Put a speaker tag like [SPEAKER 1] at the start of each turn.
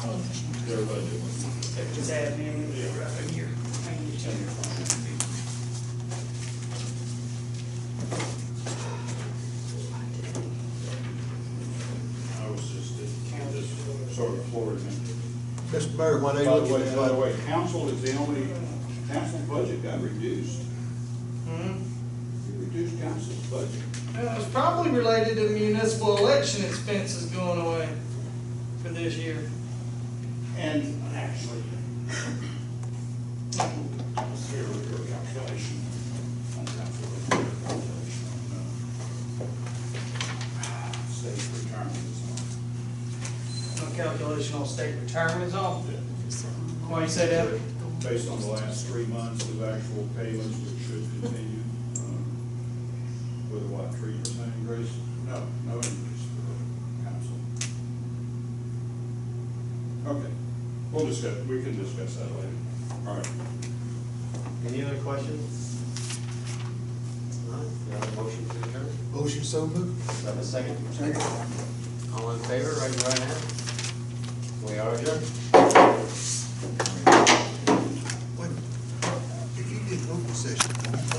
[SPEAKER 1] Everybody do one.
[SPEAKER 2] Just add me in.
[SPEAKER 1] Yeah.
[SPEAKER 2] Right here. I can get you on your phone.
[SPEAKER 1] I was just, uh, just sort of floored.
[SPEAKER 3] Mr. Mayor, when
[SPEAKER 1] By
[SPEAKER 3] they
[SPEAKER 1] the
[SPEAKER 3] look
[SPEAKER 1] way, uh,
[SPEAKER 3] at
[SPEAKER 1] by the
[SPEAKER 3] that,
[SPEAKER 1] way, council is the only, council budget got reduced. You reduced council's budget.
[SPEAKER 4] Uh, It's probably related to municipal election expenses going away for this year.
[SPEAKER 1] And actually, I was here with your calculation. I'm not sure what your calculation on, uh, State retirement is
[SPEAKER 4] No calculation on state retirement is off.
[SPEAKER 1] on.
[SPEAKER 4] Why you say that?
[SPEAKER 1] Based on the last three months of actual payments, which should continue, um, with a what, three percent increase? No, no increase for council. Okay, we'll discuss, we can discuss that later. All right.
[SPEAKER 5] Any other questions? None, we have a motion to adjourn.
[SPEAKER 3] motion so moved.
[SPEAKER 5] Do I have a second? Second. All in favor, raise your right hand. We are adjourned.